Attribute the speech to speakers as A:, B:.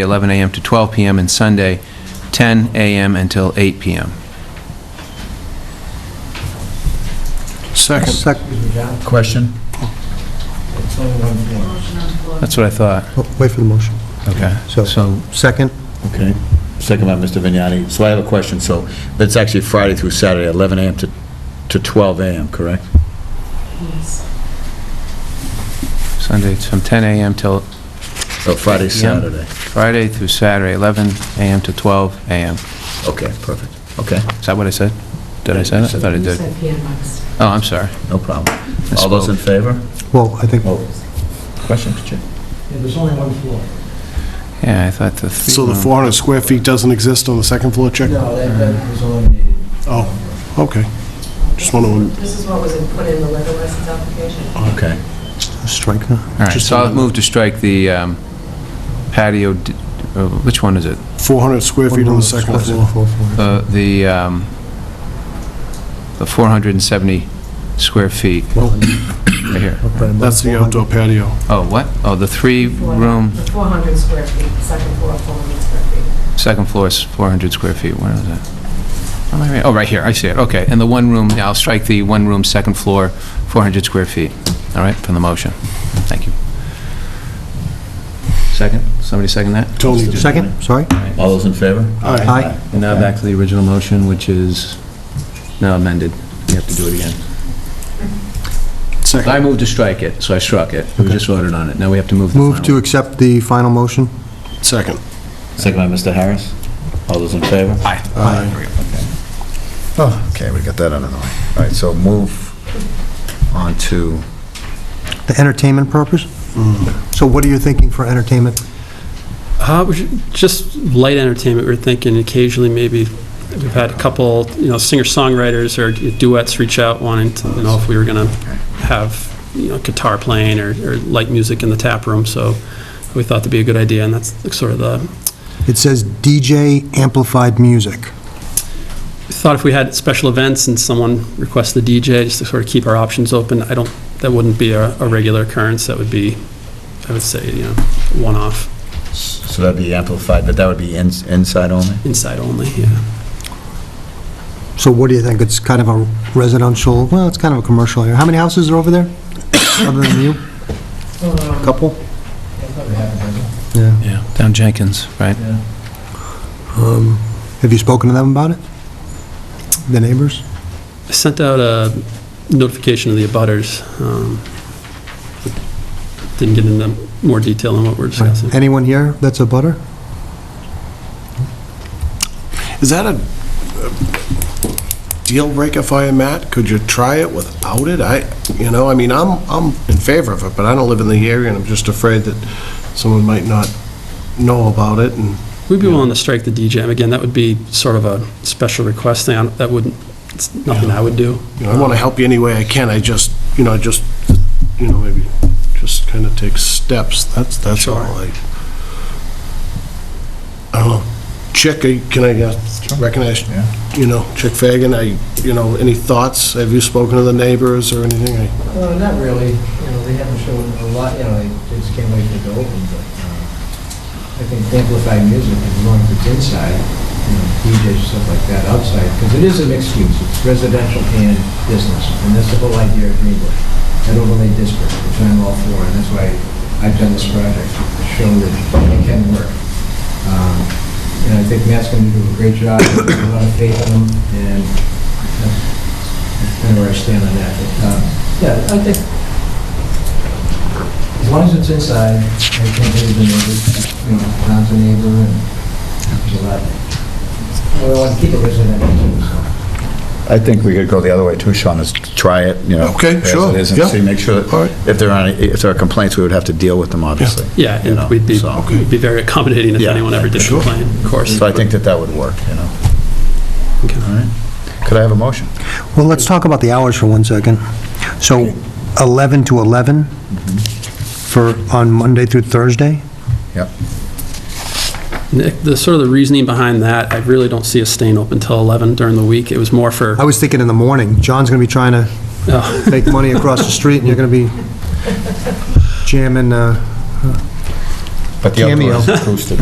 A: 11 a.m. to 12 p.m., and Sunday, 10 a.m. until 8 p.m.
B: Second.
C: Question?
A: That's what I thought.
B: Oh, Wait for the motion.
A: Okay.
B: So-
A: So,
B: Second,
C: Okay. Second by Mr. Vignani. So I have a question. So that's actually Friday through Saturday, 11 AM to to 12 AM, correct?
A: Sunday, it's from 10 a.m. till
C: So Oh, Friday,
A: 8 p.m.
C: Saturday.
A: Friday through Saturday, 11 a.m. to 12 a.m.
C: Okay, perfect. Okay,
A: Is that what I said? Did I say that? I thought I
D: You
A: did.
D: said PMX.
A: Oh, I'm sorry.
C: no problem. All those in favor?
B: well, I think,
C: Oh, question, Mr. Chair?
E: There's only one floor.
A: Yeah, I thought the... oh.
F: So the 400 square feet doesn't exist on the second floor, check?
E: No, that, that was eliminated.
F: Oh, okay. Just want
D: This is what was put in the liquor license application.
C: Okay.
B: strike that.
A: All right, so I'll move to strike the um, patio, d- uh, which one is it?
F: 400 square feet on the second floor.
A: The, the um, the 470 square feet, right here.
F: That's the outdoor patio.
A: Oh, what? Oh, the
D: Four-
A: three-room,
D: The 400 square feet, second floor, 400 square feet.
A: second floor is 400 square feet, where is that? Am I right? Oh, right here, I see it, okay. And the one-room, yeah, I'll strike the one-room, second floor, 400 square feet, all right, from the motion. Thank you. Second? Somebody second that?
F: Tony did.
B: Second, sorry?
C: All those in favor?
F: Aye.
B: Aye.
A: And now back to the original motion, which is now amended. You have to do it again. I
F: Second.
A: moved to strike it, so I struck it. We just voted on it. Now we have to move the final.
B: Move to accept the final motion?
F: Second.
C: Second by Mr. Harris. All those in favor?
G: Oh, okay, we got that out of the way. All right, so move on to,
B: The entertainment purpose? So what are you thinking for entertainment?
H: Uh, we should- Just light entertainment, we we're thinking occasionally maybe, we've had a couple, you know, singer-songwriters or duets reach out wanting to, you know, if we were going to have, you know, guitar playing or or light music in the tap room, so we thought that'd be a good idea, and that's sort of the,
B: It says DJ amplified music.
H: we thought if we had special events and someone requests the DJ, just to sort of keep our options open, I don't, that wouldn't be a a regular occurrence, that would be, I would say, you know, one-off,
C: So that'd be amplified, but that would be ins- inside only?
H: inside only, yeah.
B: So what do you think? It's kind of a residential, well, it's kind of a commercial area. How many houses are over there, other than you?
D: Um,
B: Couple?
E: That probably happened,
B: Yeah.
A: Yeah, down Jenkins, right?
E: yeah.
B: Um, Have you spoken to them about it? The neighbors?
H: I sent out a notification to the abutters. um, but Didn't get into more detail on what we're discussing.
B: Anyone here that's a butter?
F: Is that a uh, deal breaker for you, Matt? Could you try it without it? I, you know, I mean, I'm, I'm in favor of it, but I don't live in the area, and I'm just afraid that someone might not know about it, and
H: We'd be willing to strike the DJM. Again, that would be sort of a special request thing. I don't- That wouldn't, it's nothing I would do.
F: You know, I want to help you any way I can, I just, you know, I just, you know, maybe just kind of take steps, that's, that's all I... I don't know, Chick, I- can I uh, recognize,
G: Yeah.
F: you know, Chick Fagan, I, you know, any thoughts? Have you spoken to the neighbors or anything? I-
E: Uh, not really, you know, they haven't shown a lot, you know, they they just can't wait for it to open, but, uh, I think amplified music, as long as it's inside, you know, DJs, stuff like that, outside, because it is a mixed use, it's residential and business, and that's the whole idea of Greenbush, that overlay district, which I'm all for, and that's why I've done this project, to show that it can work. Um, And I think Matt's going to do a great job, I have a lot of faith in him, and that's that's kind of where I stand on that, but, um, yeah, I think, as long as it's inside, I can't hear the neighbors, you know, Tom's a neighbor, and there's a lot. We want to keep it residential, so.
G: I think we could go the other way too, Sean, is try it, you know.
F: Okay, sure,
G: As it is,
F: yeah.
G: and see, make sure
F: All right.
G: that if there are, any- if there are complaints, we would have to deal with them, obviously.
H: Yeah,
G: You know,
H: and we'd be,
G: so-
H: we'd be very accommodating if
G: Yeah,
H: anyone ever did
G: sure.
H: complain, of course.
G: So I think that that would work, you know.
H: Okay.
G: All right. Could I have a motion?
B: Well, let's talk about the hours for one second. So 11 to 11 for, on Monday through Thursday?
G: Yep.
H: Nick, The sort of the reasoning behind that, I really don't see us staying open till 11 during the week. It was more for,
B: I was thinking in the morning. John's going to be trying to
H: oh,
B: make money across the street, and you're going to be jamming, uh,
G: But the
B: Cameo.
G: outdoor is acoustic.